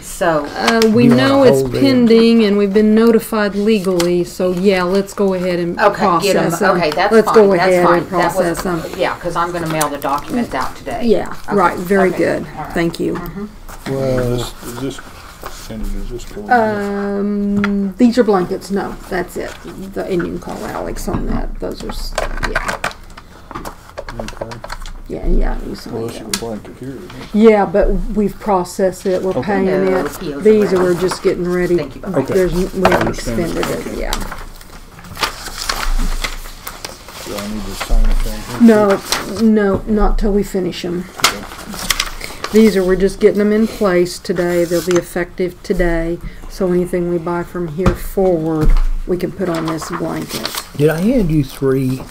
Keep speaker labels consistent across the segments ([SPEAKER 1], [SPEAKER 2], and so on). [SPEAKER 1] So,
[SPEAKER 2] Uh, we
[SPEAKER 3] You wanna
[SPEAKER 2] know it's
[SPEAKER 3] hold it.
[SPEAKER 2] pending and we've been notified legally, so yeah, let's go ahead and
[SPEAKER 1] okay,
[SPEAKER 2] process
[SPEAKER 1] get them,
[SPEAKER 2] them.
[SPEAKER 1] okay, that's fine, that's fine.
[SPEAKER 2] Let's go ahead and
[SPEAKER 1] That was-
[SPEAKER 2] process them.
[SPEAKER 1] Yeah, because I'm gonna mail the documents out today.
[SPEAKER 2] Yeah,
[SPEAKER 1] Okay,
[SPEAKER 2] right, very
[SPEAKER 1] okay,
[SPEAKER 2] good.
[SPEAKER 1] all right.
[SPEAKER 2] Thank you.
[SPEAKER 3] Well,
[SPEAKER 4] Does this, Cindy, does this go? in
[SPEAKER 1] Mm-hmm.
[SPEAKER 2] Uh,
[SPEAKER 4] here?
[SPEAKER 2] Um, these are blankets, no, that's it. The, and you can call Alex on that, those are, s- yeah,
[SPEAKER 4] Okay.
[SPEAKER 2] yeah, yeah, you
[SPEAKER 4] Well,
[SPEAKER 2] signed
[SPEAKER 4] it's a
[SPEAKER 2] them.
[SPEAKER 4] blanket here. isn't it?
[SPEAKER 2] Yeah, but we've processed it, we're
[SPEAKER 4] Okay.
[SPEAKER 2] paying
[SPEAKER 1] No,
[SPEAKER 2] it.
[SPEAKER 1] POs are
[SPEAKER 2] These
[SPEAKER 1] ready.
[SPEAKER 2] are, we're just getting ready.
[SPEAKER 1] Thank you, Bob.
[SPEAKER 4] Okay.
[SPEAKER 2] There's, we haven't
[SPEAKER 4] understand.
[SPEAKER 2] expended it, yeah.
[SPEAKER 4] Do I need to sign it down here?
[SPEAKER 2] No, no, not till we finish them. These are, we're just getting them in place today, they'll be effective today, so anything we buy from here forward, we can put on this blanket,
[SPEAKER 3] did I hand you three?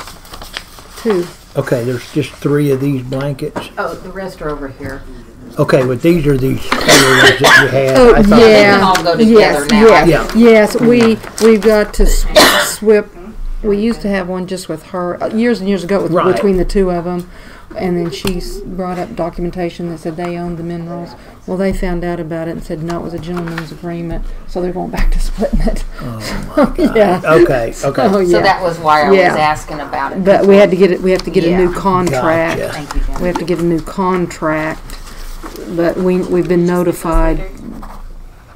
[SPEAKER 2] too.
[SPEAKER 3] Okay, there's just three of these blankets.
[SPEAKER 1] Oh, the rest are over here.
[SPEAKER 3] Okay, but these are these color ones that you had.
[SPEAKER 2] Oh,
[SPEAKER 3] I
[SPEAKER 1] They
[SPEAKER 3] thought-
[SPEAKER 1] can
[SPEAKER 2] yeah.
[SPEAKER 1] all go
[SPEAKER 2] Yes,
[SPEAKER 1] together now.
[SPEAKER 3] Yeah.
[SPEAKER 2] yes, yes, we, we've got to s- swip, we used to have one just with her, uh, years and years ago, with-
[SPEAKER 3] Right.
[SPEAKER 2] between the two of them. And then she's brought up documentation that said they owned the minerals. Well, they found out about it and said, no, it was a gentleman's agreement, so they're going back to splitting it. Oh, my God.
[SPEAKER 3] Okay,
[SPEAKER 2] Oh,
[SPEAKER 3] okay.
[SPEAKER 1] So that was why I was
[SPEAKER 2] Yeah.
[SPEAKER 1] asking about it.
[SPEAKER 2] But we had to get it, we have to get a new
[SPEAKER 1] Yeah.
[SPEAKER 2] contract.
[SPEAKER 3] Gotcha.
[SPEAKER 1] Thank you,
[SPEAKER 2] We
[SPEAKER 1] Jen.
[SPEAKER 2] have to get a new contract, but we, we've been notified.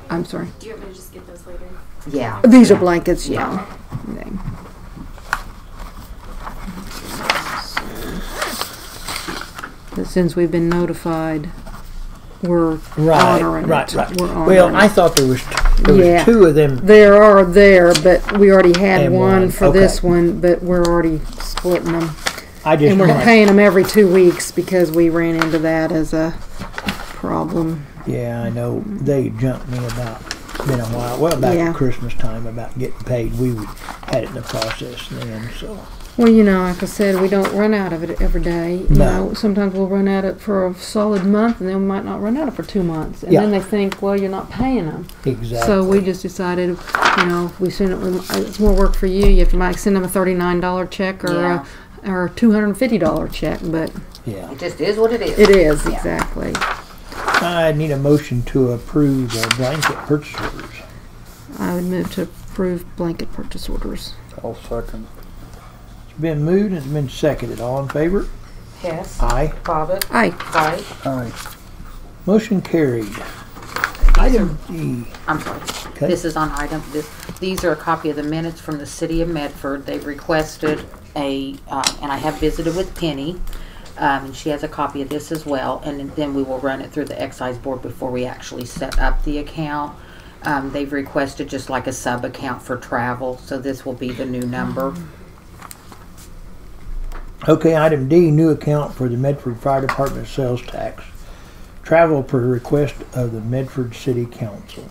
[SPEAKER 2] I'm sorry.
[SPEAKER 5] Do you want me to just get those later?
[SPEAKER 1] Yeah.
[SPEAKER 2] These are blankets, yeah. Okay. But Since we've been notified, we're
[SPEAKER 3] Right,
[SPEAKER 2] honoring
[SPEAKER 3] right,
[SPEAKER 2] it.
[SPEAKER 3] right.
[SPEAKER 2] We're
[SPEAKER 3] Well,
[SPEAKER 2] honoring
[SPEAKER 3] I
[SPEAKER 2] it.
[SPEAKER 3] thought there was, there
[SPEAKER 2] Yeah.
[SPEAKER 3] was two of them.
[SPEAKER 2] There are there, but we already had
[SPEAKER 3] And
[SPEAKER 2] one
[SPEAKER 3] one,
[SPEAKER 2] for this
[SPEAKER 3] okay.
[SPEAKER 2] one, but we're already splitting them.
[SPEAKER 3] I just
[SPEAKER 2] And we're
[SPEAKER 3] wanted-
[SPEAKER 2] paying them every two weeks because we ran into that as a problem.
[SPEAKER 3] Yeah, I know. They jumped me about been a while. Well, back
[SPEAKER 2] Yeah.
[SPEAKER 3] at Christmas time about getting paid. We would- had it in the process then. So
[SPEAKER 2] Well, you know, like I said, we don't run out of it every day. You
[SPEAKER 3] No.
[SPEAKER 2] know, sometimes we'll run out of it for a solid month, and then we might not run out of it for two months, and then
[SPEAKER 3] Yeah.
[SPEAKER 2] they think, well, you're not paying them.
[SPEAKER 3] exactly.
[SPEAKER 2] So we just decided, you know, if we send it. with- It's more work for you. You have to might send them a thirty-nine dollar check or
[SPEAKER 1] Yeah.
[SPEAKER 2] a or a two hundred and fifty dollar check, but
[SPEAKER 3] yeah.
[SPEAKER 1] It just is what it is.
[SPEAKER 2] it is exactly.
[SPEAKER 3] I need a motion to approve the blanket purchase orders.
[SPEAKER 2] I would move to approve blanket purchase orders.
[SPEAKER 4] I'll second.
[SPEAKER 3] It's been moved and it's been seconded. All in favor?
[SPEAKER 1] Yes.
[SPEAKER 3] Aye.
[SPEAKER 1] Bobbit,
[SPEAKER 2] Aye.
[SPEAKER 1] aye.
[SPEAKER 4] Aye.
[SPEAKER 3] Motion carried. Item D.
[SPEAKER 1] I'm sorry.
[SPEAKER 3] Okay.
[SPEAKER 1] This is on item, this, these are a copy of the minutes from the city of Medford. They requested a, uh, and I have visited with Penny, um, and she has a copy of this as well. And then we will run it through the excise board before we actually set up the account. Um, they've requested just like a sub-account for travel, so this will be the new number.
[SPEAKER 3] Okay, item D, new account for the Medford Fire Department sales tax. Travel per request of the Medford City Council.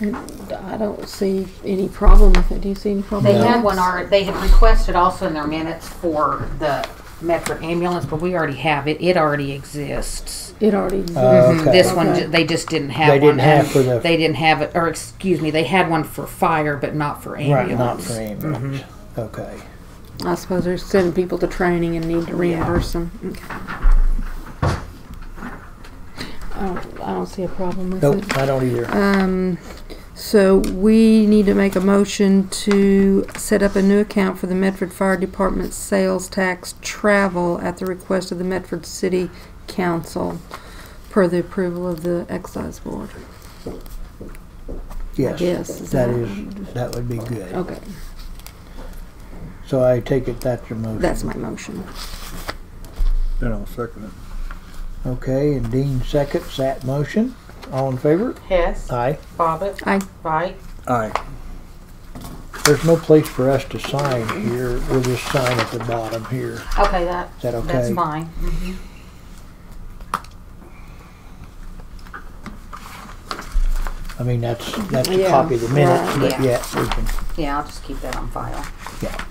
[SPEAKER 2] I don't see any problem with it. Do you see any problem?
[SPEAKER 1] They had one, alre- they had requested also in their minutes for the Medford ambulance, but we already have it. It already exists.
[SPEAKER 2] It already.
[SPEAKER 3] Uh,
[SPEAKER 2] exists.
[SPEAKER 3] Okay.
[SPEAKER 1] Mm-hmm. This one,
[SPEAKER 2] Okay.
[SPEAKER 1] ju- they just didn't have
[SPEAKER 3] They
[SPEAKER 1] one.
[SPEAKER 3] didn't have
[SPEAKER 1] and
[SPEAKER 3] for the-
[SPEAKER 1] They didn't have it, or excuse me, they had one for fire, but not for
[SPEAKER 3] Right, not
[SPEAKER 1] ambulance.
[SPEAKER 3] for ambulance. Okay.
[SPEAKER 2] I suppose they're sending people to training and need to reimburse them. Okay. I don't, I don't see a problem with
[SPEAKER 3] Nope,
[SPEAKER 2] it.
[SPEAKER 3] I don't either.
[SPEAKER 2] Um, so we need to make a motion to set up a new account for the Medford Fire Department sales tax travel at the request of the Medford City Council per the approval of the excise board.
[SPEAKER 3] Yes.
[SPEAKER 2] yes, is
[SPEAKER 3] That
[SPEAKER 2] that-
[SPEAKER 3] is, that would be good.
[SPEAKER 2] Okay,
[SPEAKER 3] So I take it that's your motion.
[SPEAKER 2] that's my motion.
[SPEAKER 4] Then I'll second it.
[SPEAKER 3] Okay, and Dean seconds that motion. All in favor?
[SPEAKER 1] Hess,
[SPEAKER 3] Aye.
[SPEAKER 1] Bobbit,
[SPEAKER 2] Aye.
[SPEAKER 1] Wright.
[SPEAKER 4] Aye.
[SPEAKER 3] There's no place for us to sign here. We'll just sign at the bottom here.
[SPEAKER 1] Okay, that,
[SPEAKER 3] Is that okay?
[SPEAKER 1] that's fine.
[SPEAKER 3] I mean, that's, that's a
[SPEAKER 2] Yeah,
[SPEAKER 3] copy of the minutes,
[SPEAKER 2] right.
[SPEAKER 3] but
[SPEAKER 1] Yeah.
[SPEAKER 3] yeah, we can,
[SPEAKER 1] Yeah, I'll just keep that on file.
[SPEAKER 3] yeah.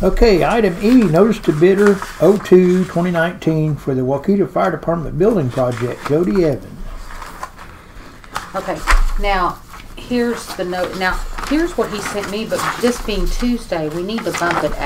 [SPEAKER 3] Okay, item E, notice to bidder 02 2019 for the Waukeeta Fire Department Building Project, Jody Evans.
[SPEAKER 1] Okay, now, here's the note, now, here's what he sent me, but this being Tuesday, we need to bump it